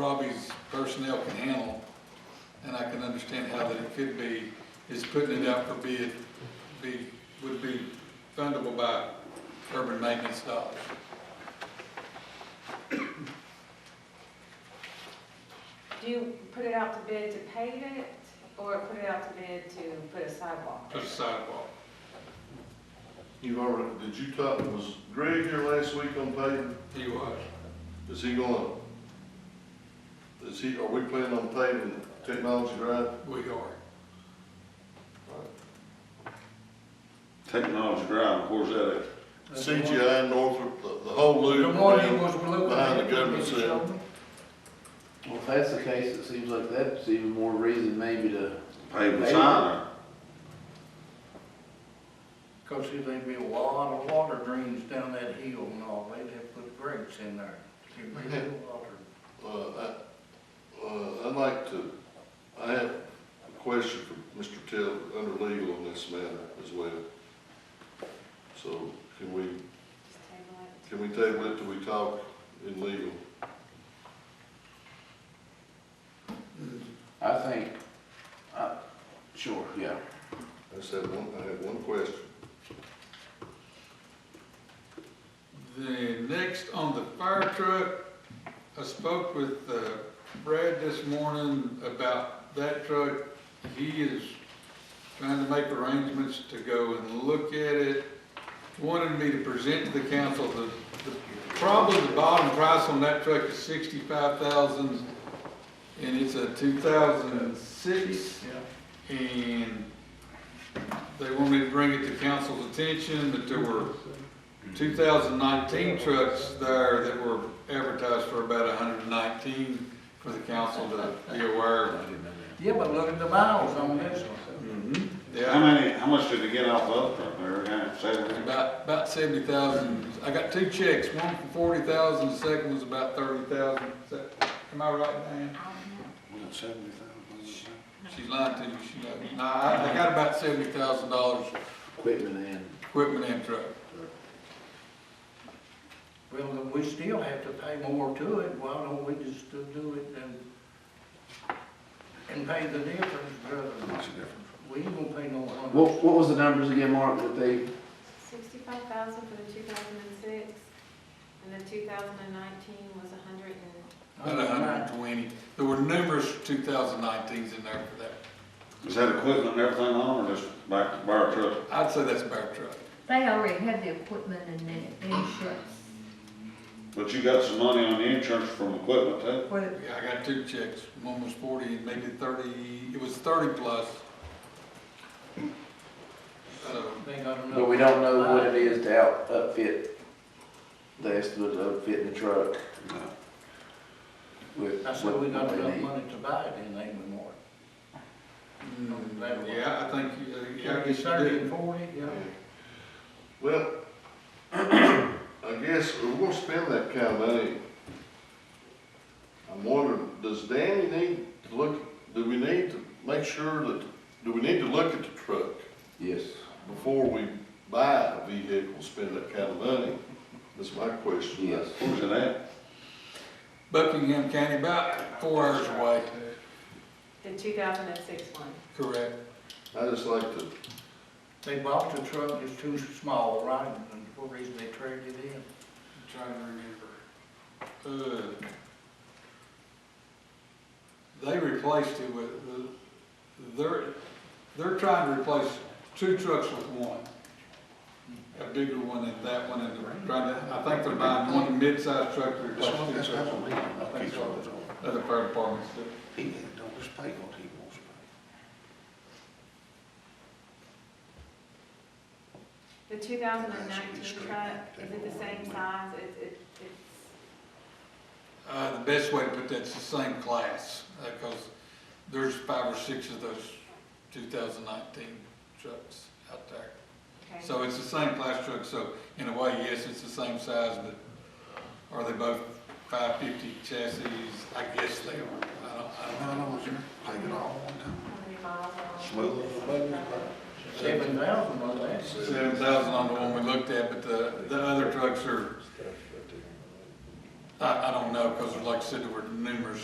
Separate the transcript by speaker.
Speaker 1: Robbie's personnel can handle, and I can understand how that it could be, is putting it out for bid, be, would be fundable by urban maintenance dollars.
Speaker 2: Do you put it out to bid to pave it, or put it out to bid to put a sidewalk?
Speaker 1: Put a sidewalk.
Speaker 3: You've already, did you talk, was Greg here last week on paving?
Speaker 1: He was.
Speaker 3: Is he gonna, is he, are we planning on paving Technology Drive?
Speaker 1: We are.
Speaker 4: Technology Drive, where's that at?
Speaker 3: CGI, Northrop, the, the whole
Speaker 1: The
Speaker 3: loop.
Speaker 1: one he
Speaker 3: around.
Speaker 1: was looking
Speaker 3: behind the
Speaker 1: at,
Speaker 3: government
Speaker 1: he
Speaker 3: center.
Speaker 1: showed me.
Speaker 5: Well, if that's the case, it seems like that's even more reason maybe to,
Speaker 4: Paving sign
Speaker 6: Because see, there'd be a lot of water drains down that hill and all, they'd have put grates in there. It'd be real water.
Speaker 3: Uh, I, uh, I'd like to, I have a question for Mr. Taylor, under legal on this matter as well. So can we,
Speaker 2: Just table it.
Speaker 3: can we table it till we talk in legal?
Speaker 5: I think, uh, sure, yeah.
Speaker 3: I just have one, I have one question.
Speaker 1: The next on the fire truck, I spoke with uh, Brad this morning about that truck. He is trying to make arrangements to go and look at it. Wanted me to present to the council the, the, probably the bottom price on that truck is sixty-five thousand. And it's a two thousand and six. And they want me to bring it to council's attention that there were 2019 trucks there that were advertised for about 119 for the council to be aware of.
Speaker 6: Yeah, but look at the miles on this one.
Speaker 4: or, how
Speaker 1: Yeah,
Speaker 4: many, how much did they get off of up there, kind of seven?
Speaker 1: about, about 70,000. I got two checks, one for 40,000, the second was about 30,000. Is that- Am I right, Dan?
Speaker 4: Seventy thousand.
Speaker 1: She lied to you, she lied. No, I I got about $70,000
Speaker 5: Equipment and,
Speaker 1: equipment and truck.
Speaker 6: Well, then we still have to pay more to it, why don't we just uh, do it and, and pay the difference, brother?
Speaker 4: What's the difference?
Speaker 6: We ain't gonna pay no
Speaker 5: what,
Speaker 6: hundred.
Speaker 5: what was the numbers again, Mark, that they,
Speaker 2: Sixty-five thousand for the two thousand and six, and the two thousand and nineteen was a hundred and,
Speaker 1: About 120. There were numerous 2019s in there for that.
Speaker 4: Is that equipment and everything on, or just back to bar truck?
Speaker 1: I'd say that's about truck.
Speaker 7: They already have the equipment and the insurance
Speaker 4: But you got some money on the insurance from equipment too?
Speaker 7: for the,
Speaker 1: Yeah, I got two checks. One was forty, and maybe thirty, it was thirty plus. So,
Speaker 6: They got enough.
Speaker 5: but we don't know what it is to out, upfit, the estimate of outfitting the truck
Speaker 4: No.
Speaker 5: with
Speaker 6: I said we
Speaker 5: what
Speaker 6: got
Speaker 5: they
Speaker 6: enough
Speaker 5: need.
Speaker 6: money to buy it in anymore.
Speaker 1: mm, yeah, I think, uh, yeah, I guess you
Speaker 6: Thirty
Speaker 1: did.
Speaker 6: and forty, yeah.
Speaker 3: Well, I guess if we're gonna spend that kind of money. I'm wondering, does Danny need to look, do we need to make sure that, do we need to look at the truck
Speaker 5: Yes,
Speaker 3: before we buy a vehicle, spend that kind of money? That's my question.
Speaker 5: yes.
Speaker 4: Where's it at?
Speaker 1: Buckingham County, about four hours away,
Speaker 2: the two thousand and six one.
Speaker 1: correct.
Speaker 3: I just like to,
Speaker 6: They bought the truck, it's too small, right, and for reason they traded it in.
Speaker 1: Trying to remember. Uh, They replaced it with, they're, they're trying to replace two trucks with one. A bigger one and that one, and they're trying to, I think they're buying one mid-sized truck to replace two trucks. I think so. Other fire departments do.
Speaker 4: don't just pay what he wants to pay.
Speaker 2: The two thousand and nineteen truck, is it the same size? It, it, it's,
Speaker 1: Uh, the best way to put that is the same class, because there's five or six of those two thousand nineteen trucks out there.
Speaker 2: okay.
Speaker 1: So it's the same class truck, so in a way, yes, it's the same size, but are they both five fifty chassis? I guess they are, I don't, I don't know.
Speaker 2: How many miles are on it?
Speaker 6: Seven thousand on that.
Speaker 1: Seven thousand on the one we looked at, but the, the other trucks are, I, I don't know, because like I said, there were numerous